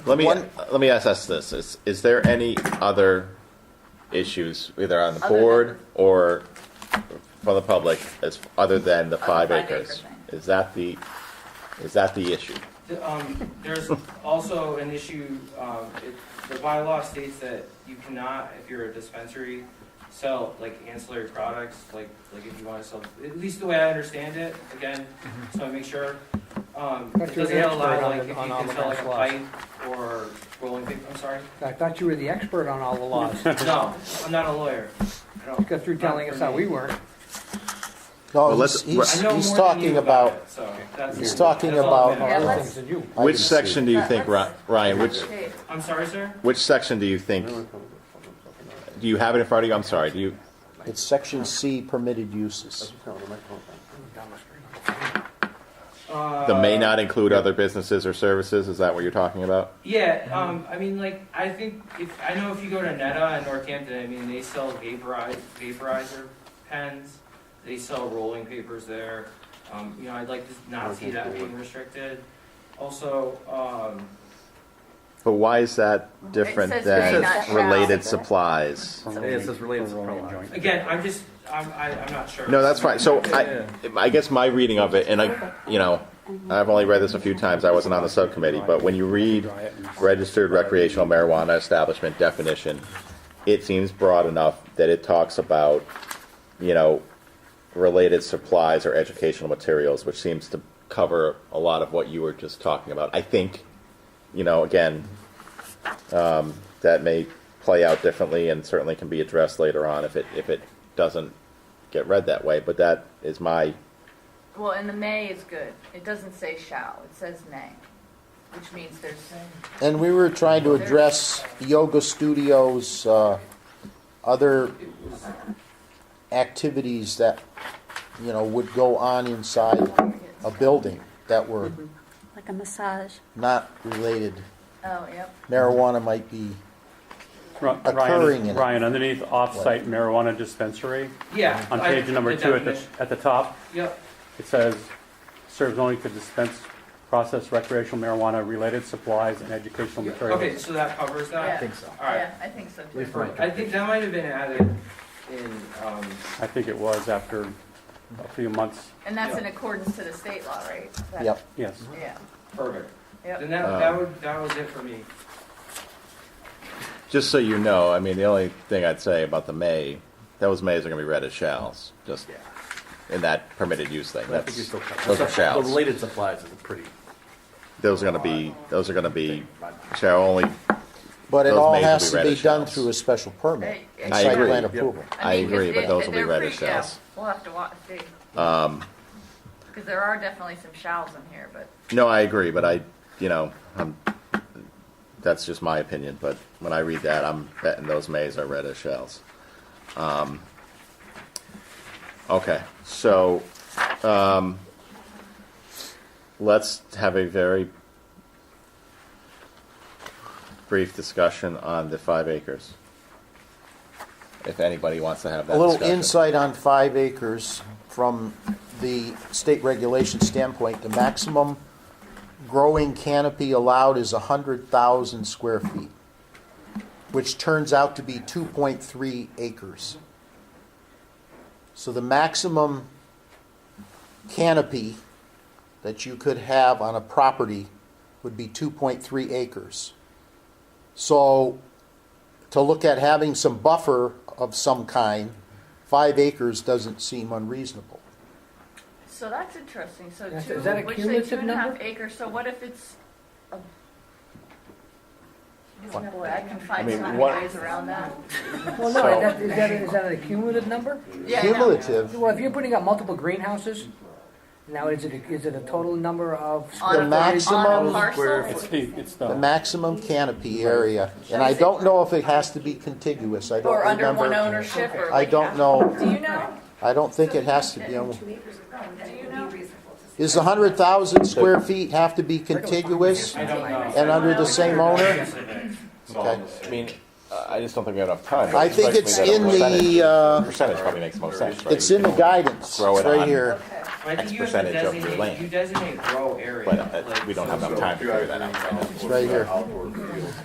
Let me, One- let me ask us this, is, is there any other issues, either on the Other than- board or for the public, as, other than the five five acre acres? thing. Is that the, is that the issue? Um, There's also an issue, um, it- the bylaw states that you cannot, if you're a dispensary, sell like ancillary products, like, like if you want to sell, at least the way I understand it, again, so I make sure. Um, But It doesn't you're the expert allow, on like, if the- you on can all sell like the a laws. pipe or rolling paper, I'm sorry? I thought you were the expert on all the laws. No, I'm not a lawyer. I don't- Because you're telling us how we weren't. No, Well, he's, let's- he's, I know he's more than you talking about, it, so that's- he's talking that's all I'm about- at. Other let's- things than you. I Which can see. section do you But think, Ri- let's- Ryan, which, Okay. I'm sorry, sir? which section do you think, do you have it in front of you? I'm sorry, do you, it's section C permitted uses. the may Uh, not include other businesses or services, is that what you're talking about? Yeah, Mm-hmm. um, I mean, like, I think if, I know if you go to Neta in Northampton, I mean, they sell vaporize, vaporizer pens. They sell rolling papers there. Um, you know, I'd like to not see that being restricted. Also, um, But why is that different says may than not shall. related supplies? It says related to rolling joint. again, I'm just, I'm, I, I'm not sure. No, that's fine. So I, I guess my reading of it, and I, you know, I've only read this a few times. I wasn't on the subcommittee, but when you read registered recreational marijuana establishment definition, it seems broad enough that it talks about, you know, related supplies or educational materials, which seems to cover a lot of what you were just talking about. I think, you know, again, um, that may play out differently and certainly can be addressed later on if it if it doesn't get read that way. But that is my Well, and the may is good. It doesn't say shall, it says may, which means there's, And we were trying to address yoga studios, uh, other activities that, you know, would go on inside a building that were like a massage. not related. oh, yep. Marijuana might be, Ri- Occurring in Ryan, it. Ryan, underneath off-site marijuana dispensary, Yeah. on I- page number the two at the, definition. at the top, Yep, it says, serves only to dispense, process recreational marijuana, related supplies and educational okay, materials. so that covers Yeah. I that? think so. All right. Yeah, I think so Leave too. right. I think that might have been added in, um, I think it was after a few months, And that's in accordance to the state law, right? That- yep. yes. Yeah, perfect. yep. Then that, Uh. that would, that was it for me. just so you know. I mean, the only thing I'd say about the may those mays are going to be read as shalls, just in that permitted use thing. I think you That's, still cover. those are The shalls. related supplies is a pretty. Those are going to be those are going to be shall only. But it Those all may has be to be read as done shells. through a special permit Hey, and I site agree. plan Yep. approval. I mean, 'cause agree, but it- those will be they're read pretty- as yeah, shells. Um, We'll have to watch, see. Because there are definitely some shalls in here, but No, I agree, but I you know I'm. That's just my opinion, but when I read that, I'm betting those mays are read as shells. Um, okay, so um, let's have a very brief discussion on the five acres. If anybody wants to have that A little discussion. insight on five acres from the state regulation standpoint, the maximum growing canopy allowed is hundred thousand square feet, which turns out to be two point three acres. So the maximum canopy that you could have on a property would be two point three acres. So to look at having some buffer of some kind, five acres doesn't seem unreasonable. So that's interesting, so That's- two, is that a which say two cumulative and a half number? acres, so what if it's a. What? Boy, I can I find mean, so many what- ways around that. Well, no, is that, is that, is that a cumulative number? Yeah, I know. Cumulative, Well, if you're putting up multiple greenhouses, now is it, a- is it a total number On of a- square The maximum on a square- parcel? It's the, it's the the, maximum canopy area, and I don't know if it has to be contiguous, I don't Or remember. under one ownership or. I like don't half- know, Do you know? I don't think it has to be, on- Do you know? is the hundred thousand square feet have to be contiguous I don't know. and under the same owner? Yes, it is. Okay. I mean, I just don't think we have enough time. I think it's in the, uh, percentage probably makes most sense. Right? it's in the guidance, Throw it it's right on. here. Okay. But I X think you have to percentage of your designate, land. you designate grow area. But uh, like, we don't so- have enough time to figure that out. right now. It's right here. Outdoor